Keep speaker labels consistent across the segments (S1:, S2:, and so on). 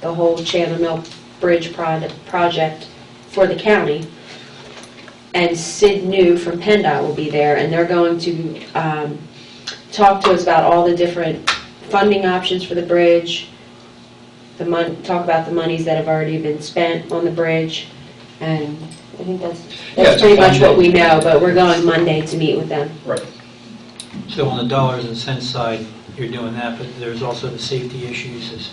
S1: the whole Chandler Mill Bridge prod- project for the county. And Sid New from PennDOT will be there, and they're going to um, talk to us about all the different funding options for the bridge, the mon, talk about the monies that have already been spent on the bridge, and I think that's,
S2: Yeah,
S1: that's
S2: it's
S1: pretty much what
S2: Monday.
S1: we know, but we're going Monday to meet with them.
S3: So on the dollars and cents side, you're doing that, but there's also the safety issues. Has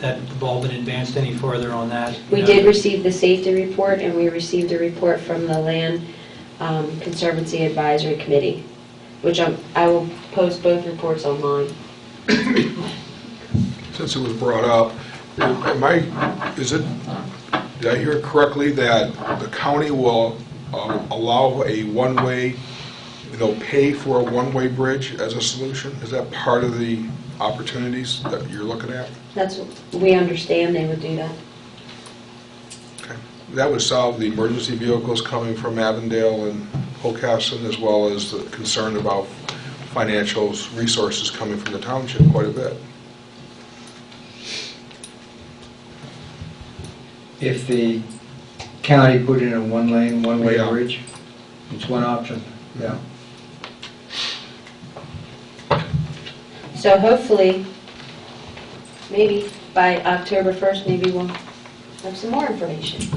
S3: that ball been advanced any further on that?
S1: We did receive the safety report, and we received a report from the Land um, Conservancy Advisory Committee, which I'm- I will post both reports online.
S4: Since it was brought up, am I, is it, did I hear correctly that the county will um, allow a one-way, they'll pay for a one-way bridge as a solution? Is that part of the opportunities that you're looking at?
S1: That's, what we understand they would do that.
S4: Okay. That would solve the emergency vehicles coming from Avondale and Hocassin, as well as the concern about financial resources coming from the township quite a bit.
S5: If the county put in a one-lane, one-way
S4: Yeah.
S5: bridge, it's one option, yeah.
S1: So hopefully, maybe by October 1st, maybe we'll have some more information.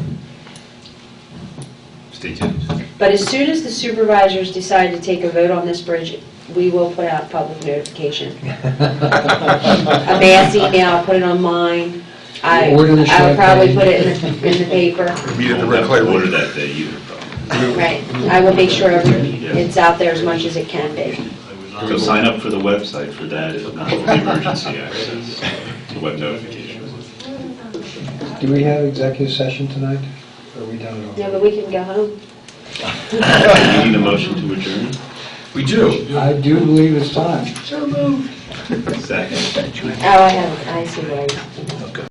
S2: Stay tuned.
S1: But as soon as the supervisors decide to take a vote on this bridge, we will put out public notification. A mass email, I'll put it on mine. I, I
S5: Order the
S1: will probably
S5: champagne.
S1: put it in the, in the paper.
S4: Meet at the
S2: Won't
S4: Red
S2: have
S4: Clay
S2: to
S4: Room.
S2: Order that day either, probably.
S1: Right, I will make sure it's out there as much as it can be.
S2: So sign up for the website for that, if not for the emergency access, the web notifications.
S5: Do we have executive session tonight? Or Are we done at all?
S1: No, but we can go home.
S2: Do you need a motion to adjourn?
S4: We do.
S5: I do believe it's time.
S2: Second.
S1: Oh, I have, I see what I was